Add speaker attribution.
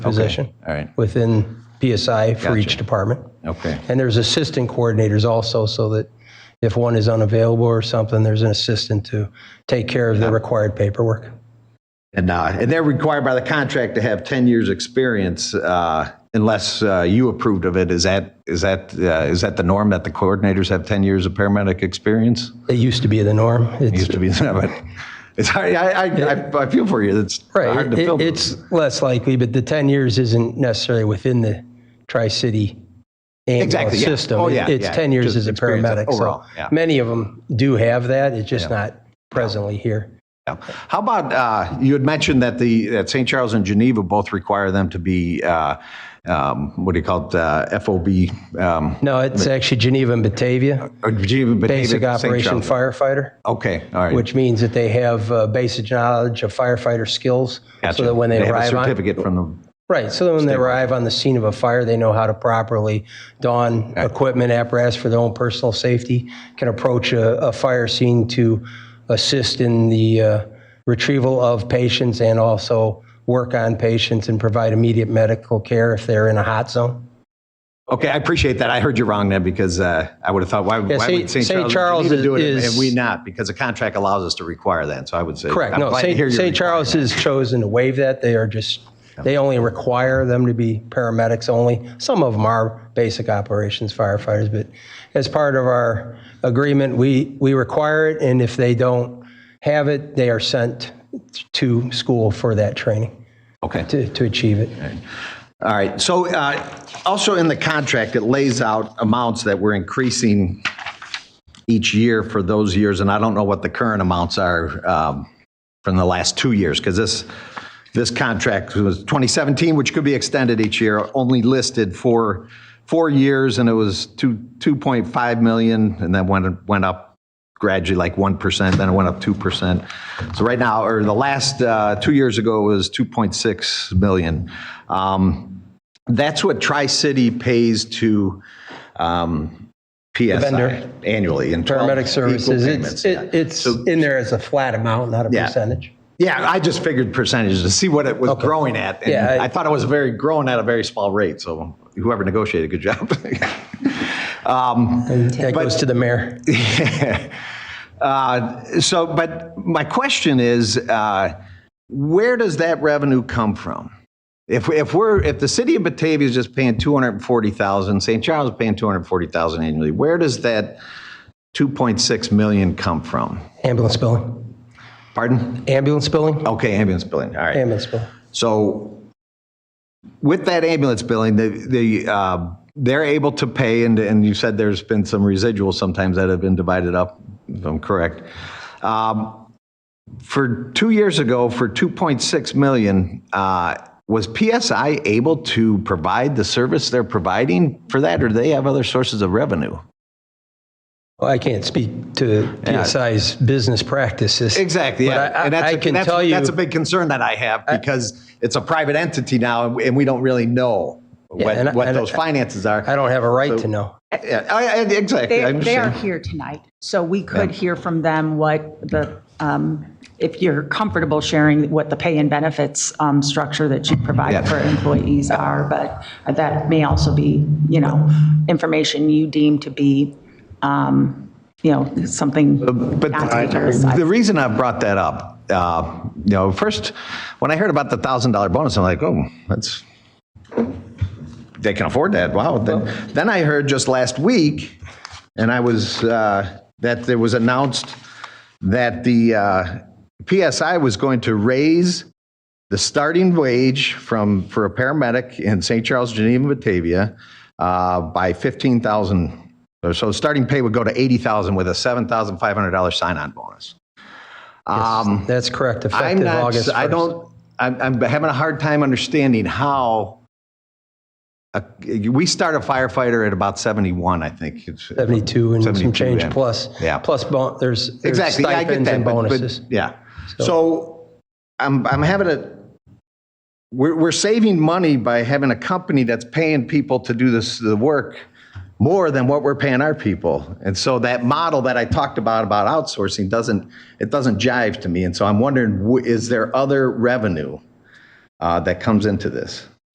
Speaker 1: position
Speaker 2: all right.
Speaker 1: within PSI for each department.
Speaker 2: Okay.
Speaker 1: And there's assistant coordinators also, so that if one is unavailable or something, there's an assistant to take care of the required paperwork.
Speaker 3: And, uh, and they're required by the contract to have 10 years' experience uh, unless uh, you approved of it. Is that, is that, uh, is that the norm that the coordinators have 10 years of paramedic experience?
Speaker 1: It used to be the norm.
Speaker 3: It
Speaker 1: It's,
Speaker 3: used to be, but it's hard, I, I- I, I feel for you. It's
Speaker 1: right.
Speaker 3: hard to
Speaker 1: it-
Speaker 3: fill.
Speaker 1: it's less likely, but the 10 years isn't necessarily within the Tri City
Speaker 3: Exactly, yeah.
Speaker 1: system.
Speaker 3: Oh,
Speaker 1: It-
Speaker 3: yeah,
Speaker 1: it's
Speaker 3: yeah.
Speaker 1: 10 years
Speaker 3: Just
Speaker 1: as a
Speaker 3: experience
Speaker 1: paramedic.
Speaker 3: overall,
Speaker 1: so
Speaker 3: yeah.
Speaker 1: many of them do have that. It's just not presently here.
Speaker 3: Yeah. How about, uh, you had mentioned that the, that St. Charles and Geneva both require them to be, uh, um, what do you call it, uh, FOB? um,
Speaker 1: No, it's actually Geneva and Batavia,
Speaker 3: or Geneva, but
Speaker 1: basic
Speaker 3: David, St.
Speaker 1: operation
Speaker 3: Charles.
Speaker 1: firefighter.
Speaker 3: Okay, all right.
Speaker 1: which means that they have uh, basic knowledge of firefighter skills,
Speaker 3: Gotcha.
Speaker 1: so that when they,
Speaker 3: have a
Speaker 1: arrive on
Speaker 3: Certificate from the
Speaker 1: right, so that when they arrive on the scene of a fire, they know how to properly don equipment apparatus for their own personal safety, can approach a, a fire scene to assist in the uh, retrieval of patients and also work on patients and provide immediate medical care if they're in a hot zone.
Speaker 3: Okay, I appreciate that. I heard you wrong then because uh, I would have thought, why, why
Speaker 1: St-
Speaker 3: would St.
Speaker 1: St.
Speaker 3: Charles,
Speaker 1: Charles
Speaker 3: Geneva do it and-
Speaker 1: is-
Speaker 3: and we not? Because the contract allows us to require that. So I would say,
Speaker 1: Correct.
Speaker 3: I'm
Speaker 1: No,
Speaker 3: glad to
Speaker 1: St.
Speaker 3: hear you're
Speaker 1: St.
Speaker 3: requiring
Speaker 1: Charles has chosen to waive that. They are just, they only require them to be paramedics only. Some of them are basic operations firefighters, but as part of our agreement, we, we require it, and if they don't have it, they are sent to school for that training
Speaker 3: that. Okay.
Speaker 1: to, to achieve it.
Speaker 3: All right, so uh, also in the contract, it lays out amounts that we're increasing each year for those years, and I don't know what the current amounts are um, from the last two years, because this, this contract was 2017, which could be extended each year, only listed for four years, and it was two 2.5 million, and then went, went up gradually like 1%, then it went up 2%. So right now, or the last, uh, two years ago, it was 2.6 million. Um, That's what Tri-City pays to um, PSI
Speaker 1: vendor.
Speaker 3: annually in 12
Speaker 1: Paramedic
Speaker 3: equal
Speaker 1: services,
Speaker 3: payments,
Speaker 1: it's,
Speaker 3: yeah.
Speaker 1: it- it's in there as a flat amount, not a
Speaker 3: Yeah.
Speaker 1: percentage.
Speaker 3: Yeah, I just figured percentages to see what it was growing at. And
Speaker 1: Yeah,
Speaker 3: I,
Speaker 1: I-
Speaker 3: thought it was very growing at a very small rate. So whoever negotiated, good job. um,
Speaker 1: That goes to the mayor.
Speaker 3: uh, so, but my question is, uh, where does that revenue come from? If, if we're if the city of Batavia is just paying two hundred forty thousand, St. Charles is paying two hundred forty thousand annually. Where does that two point six million come from?
Speaker 1: Ambulance billing.
Speaker 3: Pardon?
Speaker 1: Ambulance billing?
Speaker 3: Okay, ambulance billing. All right.
Speaker 1: Ambulance billing.
Speaker 3: So with that ambulance billing, the, the, uh, they're able to pay, and, and you said there's been some residuals sometimes that have been divided up, if I'm correct. Um, For two years ago, for 2.6 million, uh, was PSI able to provide the service they're providing for that, or do they have other sources of revenue?
Speaker 1: Well, I can't speak to
Speaker 3: Yeah.
Speaker 1: PSI's business practices.
Speaker 3: Exactly,
Speaker 1: But
Speaker 3: yeah.
Speaker 1: I-
Speaker 3: and that's
Speaker 1: I
Speaker 3: a-
Speaker 1: can
Speaker 3: that's,
Speaker 1: tell you-
Speaker 3: That's a big concern that I have because it's a private entity now and we don't really know what,
Speaker 1: and I-
Speaker 3: what
Speaker 1: and I-
Speaker 3: those finances are.
Speaker 1: I don't have a right to know.
Speaker 3: Yeah, I, I, exactly. I
Speaker 4: They, they are
Speaker 3: understand.
Speaker 4: here tonight, so we could hear from them what the, um, if you're comfortable sharing what the pay and benefits um, structure that you
Speaker 3: Yeah.
Speaker 4: provide for employees are, but that may also be, you know, information you deem to be, um, you know, something
Speaker 3: But
Speaker 4: not to be criticized.
Speaker 3: the reason I brought that up, uh, you know, first, when I heard about the thousand dollar bonus, I'm like, oh, that's they can afford that. Wow. Then, then I heard just last week, and I was uh, that there was announced that the uh, PSI was going to raise the starting wage from for a paramedic in St. Charles, Geneva, Batavia, uh, by fifteen thousand. So starting pay would go to eighty thousand with a seven thousand five hundred dollar sign-on bonus. Um,
Speaker 1: That's correct,
Speaker 3: I'm
Speaker 1: effective
Speaker 3: not.
Speaker 1: August 1st.
Speaker 3: I don't. I'm, I'm having a hard time understanding how. A, we start a firefighter at about seventy-one, I think. It's-
Speaker 1: 72 and some
Speaker 3: 72,
Speaker 1: change
Speaker 3: yeah.
Speaker 1: plus.
Speaker 3: Yeah.
Speaker 1: Plus, bon- there's there's
Speaker 3: Exactly. Yeah, I get
Speaker 1: stipends
Speaker 3: that.
Speaker 1: and
Speaker 3: but- but-
Speaker 1: bonuses.
Speaker 3: Yeah. So I'm, I'm having a, we're, we're saving money by having a company that's paying people to do this, the work more than what we're paying our people. And so that model that I talked about, about outsourcing doesn't, it doesn't jive to me. And so I'm wondering, wh- is there other revenue uh, that comes into this?